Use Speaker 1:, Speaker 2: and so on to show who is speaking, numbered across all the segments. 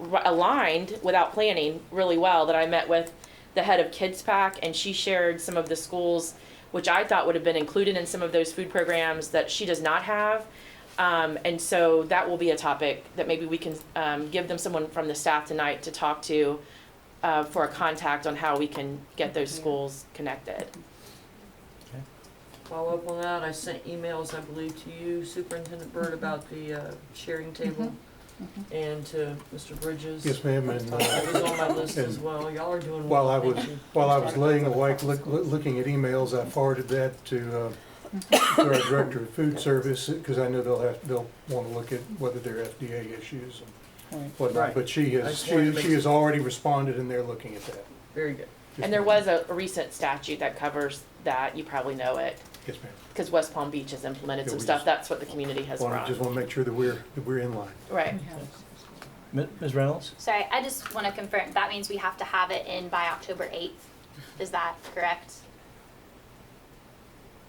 Speaker 1: r- aligned without planning really well that I met with the head of Kids Pack, and she shared some of the schools which I thought would have been included in some of those food programs that she does not have. Um, and so that will be a topic that maybe we can um, give them someone from the staff tonight to talk to uh, for a contact on how we can get those schools connected.
Speaker 2: Follow up on that, I sent emails, I believe, to you, Superintendent Byrd, about the uh, sharing table, and to Mr. Bridges.
Speaker 3: Yes, ma'am, and uh,
Speaker 2: That was on my list as
Speaker 3: And
Speaker 2: well, y'all are doing well.
Speaker 3: while I
Speaker 2: Thank
Speaker 3: was,
Speaker 2: you.
Speaker 3: while I was laying awake, look, look- looking at emails, I forwarded that to, uh, to our Director of Food Service, because I know they'll have, they'll want to look at whether they're FDA issues and whatnot,
Speaker 2: Right.
Speaker 3: but she
Speaker 2: I
Speaker 3: has,
Speaker 2: just wanted to
Speaker 3: she,
Speaker 2: make
Speaker 3: she has already responded and they're looking at that.
Speaker 2: Very good.
Speaker 3: Yes,
Speaker 1: And there
Speaker 3: ma'am.
Speaker 1: was a, a recent statute that covers that. You probably know it
Speaker 3: Yes, ma'am.
Speaker 1: because West Palm Beach has implemented
Speaker 3: Yeah,
Speaker 1: some
Speaker 3: we
Speaker 1: stuff.
Speaker 3: just
Speaker 1: That's what the community has
Speaker 3: Wanna-
Speaker 1: brought.
Speaker 3: Just want to make sure that we're, that we're in line.
Speaker 1: right.
Speaker 4: Mi- Ms. Reynolds?
Speaker 5: Sorry, I just want to confirm, that means we have to have it in by October 8th? Is that correct?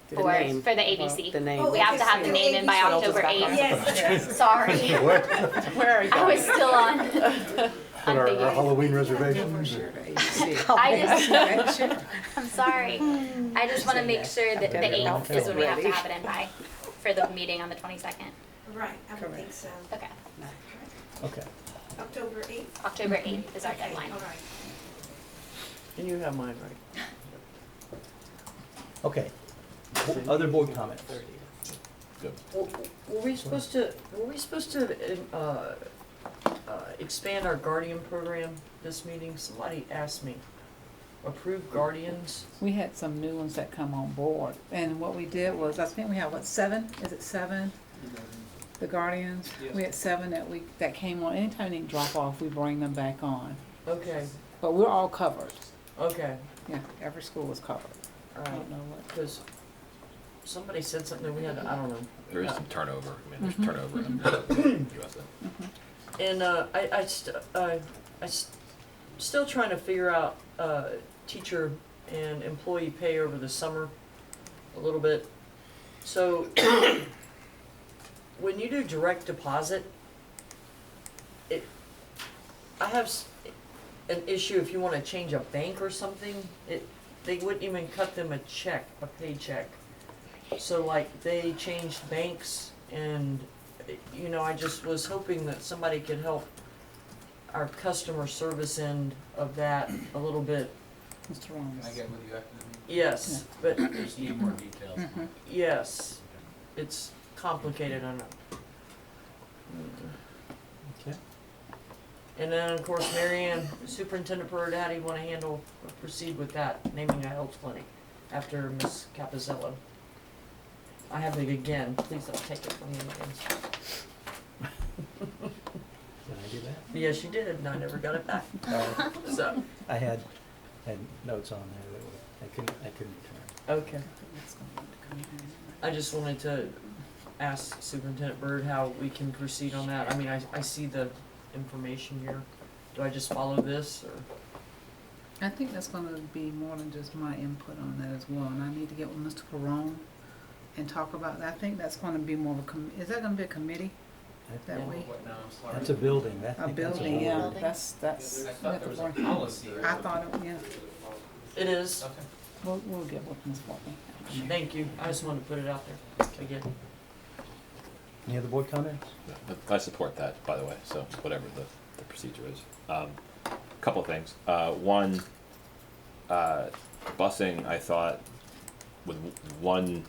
Speaker 6: The
Speaker 5: For,
Speaker 6: name.
Speaker 5: for the ABC?
Speaker 6: The name.
Speaker 7: Oh,
Speaker 5: We have to have the name in by
Speaker 7: ABC.
Speaker 5: October
Speaker 1: Back on.
Speaker 5: 8th?
Speaker 7: Yes.
Speaker 5: Sorry,
Speaker 3: What?
Speaker 1: Where are you?
Speaker 5: I was still on,
Speaker 3: What, our
Speaker 5: I'm
Speaker 3: our
Speaker 5: thinking,
Speaker 3: Halloween reservations?
Speaker 7: Oh,
Speaker 5: I just, I'm sorry. I just want to make sure that the
Speaker 6: Okay.
Speaker 5: 8th is when we have
Speaker 6: Ready.
Speaker 5: to have it in by, for the meeting on the 22nd.
Speaker 7: Right, I would think
Speaker 6: Correct.
Speaker 7: so.
Speaker 5: Okay,
Speaker 4: Okay.
Speaker 7: October 8th?
Speaker 5: October 8th is our
Speaker 7: Okay,
Speaker 5: deadline.
Speaker 7: All right.
Speaker 2: And you have mine right.
Speaker 4: Okay. Bo- Other board comments?
Speaker 2: Were were we supposed to, were we supposed to, uh, uh, expand our guardian program this meeting? Somebody asked me. Approve guardians?
Speaker 8: We had some new ones that come on board, and what we did was, I think we had, what, seven, is it seven? The Guardians, we had seven that we, that came on, anytime they drop off, we bring them back on,
Speaker 2: Okay,
Speaker 8: but we're all covered,
Speaker 2: okay,
Speaker 8: yeah, every school is covered.
Speaker 2: all
Speaker 8: I
Speaker 2: right.
Speaker 8: don't know what,
Speaker 2: Because somebody said something that we had, I don't know.
Speaker 9: There is some turnover, I mean, there's turnover in the USA.
Speaker 2: And uh, I, I, st- I, I s- still trying to figure out uh, teacher and employee pay over the summer a little bit. So when you do direct deposit, it, I have s- an issue if you want to change a bank or something, it, they wouldn't even cut them a check, a paycheck. So like they changed banks and you know, I just was hoping that somebody could help our customer service end of that a little bit.
Speaker 8: Mr. Ramos.
Speaker 10: with you after the meeting?
Speaker 2: Yes, but
Speaker 10: Just need more details.
Speaker 8: Mhm.
Speaker 2: yes, it's complicated, I know.
Speaker 4: Okay.
Speaker 2: And then, of course, Marianne, Superintendent Byrd, how do you wanna handle, proceed with that, naming a health clinic after Miss Capizella? I have it again, please don't take it from me again.
Speaker 4: Did I do that?
Speaker 2: Yes, you did, and I never got it back,
Speaker 4: No,
Speaker 2: so,
Speaker 4: I had, had notes on there that were, I couldn't, I couldn't return.
Speaker 2: okay. I just wanted to ask Superintendent Byrd how we can proceed on that. I mean, I, I see the information here. Do I just follow this or?
Speaker 8: I think that's gonna be more than just my input on that as well, and I need to get with Mr. Perone and talk about that, I think that's gonna be more of a com, is that gonna be a committee
Speaker 4: That-
Speaker 8: that we,
Speaker 10: What now, I'm sorry.
Speaker 4: That's a building, that, I
Speaker 8: a
Speaker 4: think that's a
Speaker 8: building, yeah,
Speaker 4: board.
Speaker 8: that's, that's.
Speaker 10: I
Speaker 8: we
Speaker 10: thought there
Speaker 8: have to
Speaker 10: was a
Speaker 8: bring-
Speaker 10: policy. or-
Speaker 8: I thought, it- yeah,
Speaker 2: It is.
Speaker 10: Okay.
Speaker 8: we'll, we'll get with Ms. Walton.
Speaker 2: Thank you. I just wanted to put it out there again.
Speaker 4: Any other board comments?
Speaker 9: I support that, by the way, so whatever the, the procedure is. Um, couple of things. Uh, one, uh, busing, I thought, with w- one,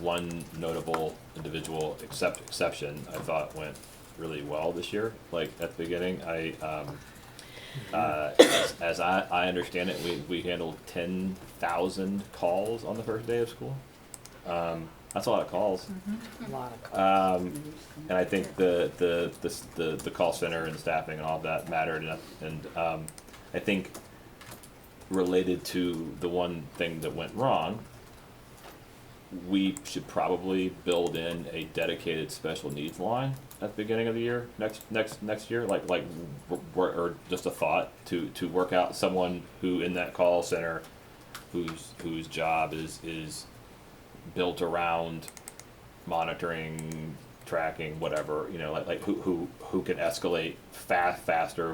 Speaker 9: one notable individual except exception, I thought went really well this year. Like at the beginning, I, um, uh, as, as I, I understand it, we, we handled ten thousand calls on the first day of school. Um, that's a lot of calls.
Speaker 6: A lot of
Speaker 9: Um, and I think the, the, the, s- the, the call center and staffing and all that mattered, and, and, um, I think related to the one thing that went wrong, we should probably build in a dedicated special needs line at the beginning of the year, next, next, next year, like, like, w- w- or just a thought, to, to work out someone who in that call center, whose, whose job is, is built around monitoring, tracking, whatever, you know, like, like who, who, who can escalate fa- faster